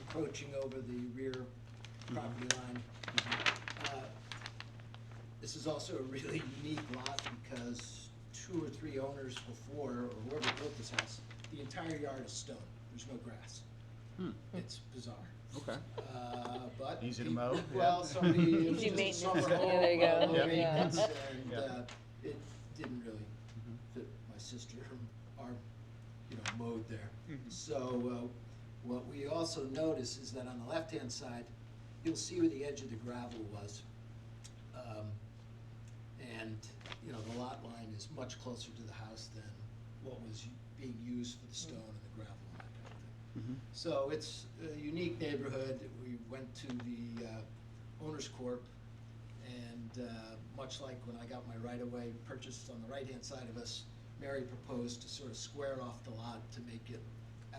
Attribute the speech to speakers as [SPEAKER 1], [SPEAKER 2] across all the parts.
[SPEAKER 1] encroaching over the rear property line. Uh, This is also a really unique lot because two or three owners before, or whoever built this house, the entire yard is stone, there's no grass.
[SPEAKER 2] Hmm.
[SPEAKER 1] It's bizarre.
[SPEAKER 2] Okay.
[SPEAKER 1] Uh, but.
[SPEAKER 2] Easy to
[SPEAKER 1] peop-
[SPEAKER 2] mow,
[SPEAKER 1] Well,
[SPEAKER 2] yeah.
[SPEAKER 1] somebody, it was
[SPEAKER 3] Easy
[SPEAKER 1] just a
[SPEAKER 3] maintenance.
[SPEAKER 1] summer
[SPEAKER 2] Yeah,
[SPEAKER 1] home,
[SPEAKER 2] there you
[SPEAKER 1] uh,
[SPEAKER 2] go.
[SPEAKER 1] low
[SPEAKER 2] Yeah.
[SPEAKER 1] maintenance,
[SPEAKER 3] Yeah.
[SPEAKER 1] and,
[SPEAKER 2] Yeah. Mm-hmm.
[SPEAKER 1] uh, it didn't really fit my sister, our, you know, mode there. So, uh, what we also notice is that on the left-hand side, you'll see where the edge of the gravel was. Um, And, you know, the lot line is much closer to the house than what was u- being used for the stone and the gravel and that kind of thing.
[SPEAKER 2] Mhm.
[SPEAKER 1] So it's a unique neighborhood. We went to the uh, Owners Corp. And uh, much like when I got my right-of-way purchased on the right-hand side of us, Mary proposed to sort of square off the lot to make it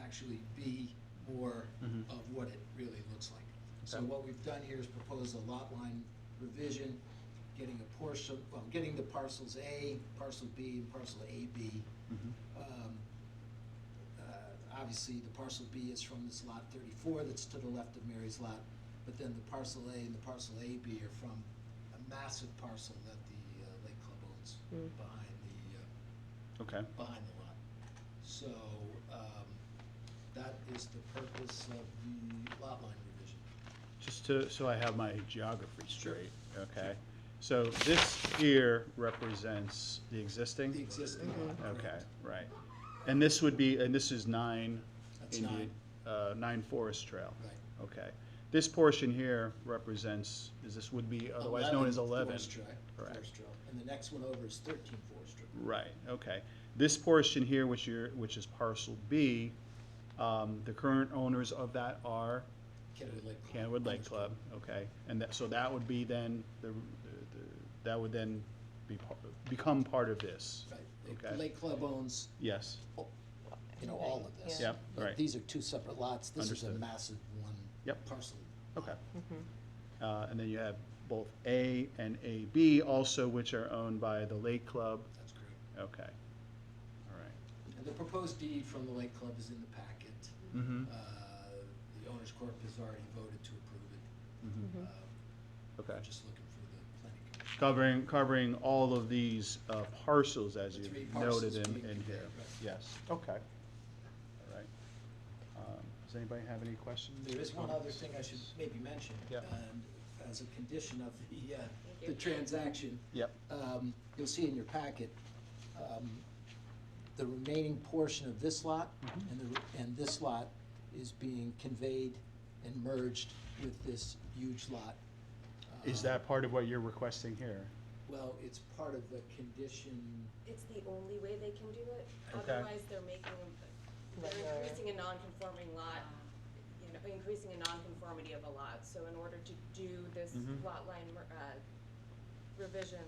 [SPEAKER 1] actually be more
[SPEAKER 2] Mhm.
[SPEAKER 1] of what it really looks like. So
[SPEAKER 2] Okay.
[SPEAKER 1] what we've done here is propose a lot line revision, getting a portion, well, getting the parcels A, parcel B, and parcel AB
[SPEAKER 2] Mhm.
[SPEAKER 1] um, uh, Obviously, the parcel B is from this lot thirty-four that's to the left of Mary's lot, but then the parcel A and the parcel AB are from a massive parcel that the uh, Lake Club owns
[SPEAKER 3] Mm.
[SPEAKER 1] behind the, uh,
[SPEAKER 2] Okay.
[SPEAKER 1] behind the lot. So, um, that is the purpose of the lot line revision.
[SPEAKER 2] Just to, so I have my geography
[SPEAKER 1] Sure.
[SPEAKER 2] straight, okay? So this here represents the existing?
[SPEAKER 1] The existing lot.
[SPEAKER 2] Okay,
[SPEAKER 1] correct.
[SPEAKER 2] right. And this would be, and this is nine?
[SPEAKER 1] That's
[SPEAKER 2] Indian- Uh, nine Forest Trail?
[SPEAKER 1] Right.
[SPEAKER 2] Okay. This portion here represents, is this would be otherwise known as eleven?
[SPEAKER 1] Forest Drive,
[SPEAKER 2] Correct.
[SPEAKER 1] Forest Drive. And the next one over is thirteen Forest Drive.
[SPEAKER 2] Right, okay. This portion here, which you're, which is parcel B, um, the current owners of that are?
[SPEAKER 1] Kennewood Lake Club.
[SPEAKER 2] Canwood Lake
[SPEAKER 1] Owners
[SPEAKER 2] Club, okay, and that, so that would be then, the, the- that would then be, par- become part of this?
[SPEAKER 1] Right, the
[SPEAKER 2] Okay,
[SPEAKER 1] Lake Club owns
[SPEAKER 2] yes,
[SPEAKER 1] you know, all of this.
[SPEAKER 2] Yeah. Yep, right.
[SPEAKER 1] These are two separate lots, this is a
[SPEAKER 2] Understood.
[SPEAKER 1] massive one
[SPEAKER 2] Yep.
[SPEAKER 1] parcel.
[SPEAKER 2] okay. Uh, and then you have both A and AB also, which are owned by the Lake Club,
[SPEAKER 1] That's correct.
[SPEAKER 2] okay, all right.
[SPEAKER 1] And the proposed deed from the Lake Club is in the packet.
[SPEAKER 2] Mm-hmm,
[SPEAKER 1] Uh, The Owners Corp has already voted to approve it.
[SPEAKER 2] mm-hmm,
[SPEAKER 1] Uh,
[SPEAKER 2] okay.
[SPEAKER 1] I'm Just looking for the planning commission.
[SPEAKER 2] Covering, covering all of these uh, parcels as
[SPEAKER 1] The
[SPEAKER 2] you
[SPEAKER 1] three
[SPEAKER 2] noted
[SPEAKER 1] parcels
[SPEAKER 2] in,
[SPEAKER 1] being
[SPEAKER 2] in here,
[SPEAKER 1] compared, right.
[SPEAKER 2] yes, okay. All right. Um, Does anybody have any questions?
[SPEAKER 1] There
[SPEAKER 2] or
[SPEAKER 1] is one other
[SPEAKER 2] comments?
[SPEAKER 1] thing I should maybe mention.
[SPEAKER 2] Yeah.
[SPEAKER 1] And as a condition of the, uh,
[SPEAKER 3] you.
[SPEAKER 1] the transaction,
[SPEAKER 2] Yep.
[SPEAKER 1] um, you'll see in your packet, um, the remaining portion of this lot
[SPEAKER 2] Mhm.
[SPEAKER 1] and the, and this lot is being conveyed and merged with this huge lot.
[SPEAKER 2] Is
[SPEAKER 1] Uh,
[SPEAKER 2] that part of what you're requesting here?
[SPEAKER 1] Well, it's part of the condition,
[SPEAKER 4] It's the only way they can do it,
[SPEAKER 2] Okay.
[SPEAKER 4] otherwise they're making, a-
[SPEAKER 3] Like
[SPEAKER 4] they're
[SPEAKER 3] a-
[SPEAKER 4] increasing a non-conforming lot, you know, increasing a non-conformity of a lot, so in order to do this
[SPEAKER 2] Mhm.
[SPEAKER 4] lot line, mer- uh, revision,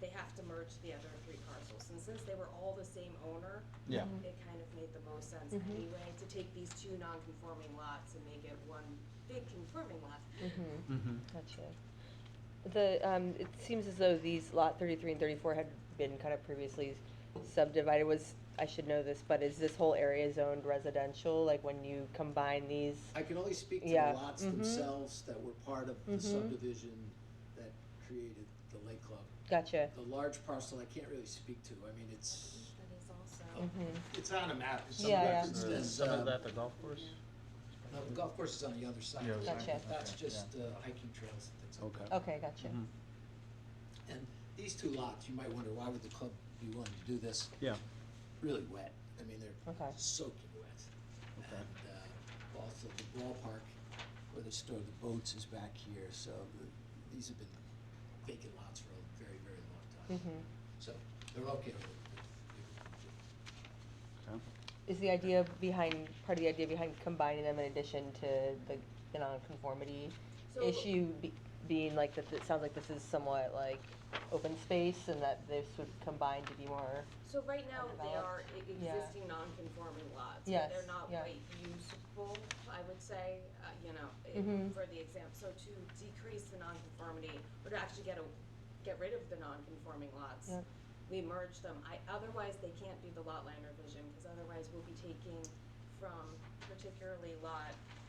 [SPEAKER 4] they have to merge the other three parcels, and since they were all the same owner,
[SPEAKER 2] Yeah.
[SPEAKER 4] it kind of made the most sense
[SPEAKER 3] Mhm.
[SPEAKER 4] anyway, to take these two non-conforming lots and make it one big conforming lot.
[SPEAKER 3] Mm-hmm,
[SPEAKER 2] Mm-hmm.
[SPEAKER 3] gotcha. The, um, it seems as though these lot thirty-three and thirty-four had been kind of previously subdivided, was, I should know this, but is this whole area zoned residential, like when you combine these?
[SPEAKER 1] I can only speak to
[SPEAKER 3] Yeah,
[SPEAKER 1] the lots
[SPEAKER 3] mhm.
[SPEAKER 1] themselves that were part of the
[SPEAKER 3] Mhm.
[SPEAKER 1] subdivision that created the Lake Club.
[SPEAKER 3] Gotcha,
[SPEAKER 1] The large parcel, I can't really speak to, I mean, it's,
[SPEAKER 4] That is also.
[SPEAKER 3] mm-hmm,
[SPEAKER 1] it's on a map, it's
[SPEAKER 3] Yeah, yeah.
[SPEAKER 1] referenced as, um,
[SPEAKER 2] the golf course?
[SPEAKER 1] No, the golf course is on the other side.
[SPEAKER 2] The other
[SPEAKER 3] side, Gotcha.
[SPEAKER 1] That's
[SPEAKER 2] okay,
[SPEAKER 1] just uh, hiking trails and things like
[SPEAKER 2] Okay.
[SPEAKER 1] that.
[SPEAKER 3] okay, gotcha.
[SPEAKER 2] Mhm.
[SPEAKER 1] And these two lots, you might wonder, why would the club be willing to do this?
[SPEAKER 2] Yeah,
[SPEAKER 1] Really wet. I mean, they're
[SPEAKER 3] Okay.
[SPEAKER 1] soaking wet.
[SPEAKER 2] Okay.
[SPEAKER 1] And uh, also the ballpark where they store the boats is back here, so the- these have been vacant lots for a very, very long time.
[SPEAKER 3] Mm-hmm.
[SPEAKER 1] So they're okay with it.
[SPEAKER 2] okay.
[SPEAKER 3] Is the idea behind, part of the idea behind combining them in addition to the, the non-conformity
[SPEAKER 4] So-
[SPEAKER 3] issue be- being like that, it sounds like this is somewhat like open space and that this would combine to be more,
[SPEAKER 4] So right now, they are
[SPEAKER 3] Undeveloped.
[SPEAKER 4] e-
[SPEAKER 3] Yeah.
[SPEAKER 4] existing non-conforming lots, but
[SPEAKER 3] Yes,
[SPEAKER 4] they're not
[SPEAKER 3] yeah.
[SPEAKER 4] quite usable, I would say, uh, you know, i-
[SPEAKER 3] Mhm.
[SPEAKER 4] for the exam, so to decrease the nonconformity, or to actually get a, get rid of the non-conforming lots,
[SPEAKER 3] Yep.
[SPEAKER 4] we merge them, I, otherwise they can't do the lot line revision, cause otherwise we'll be taking from particularly lot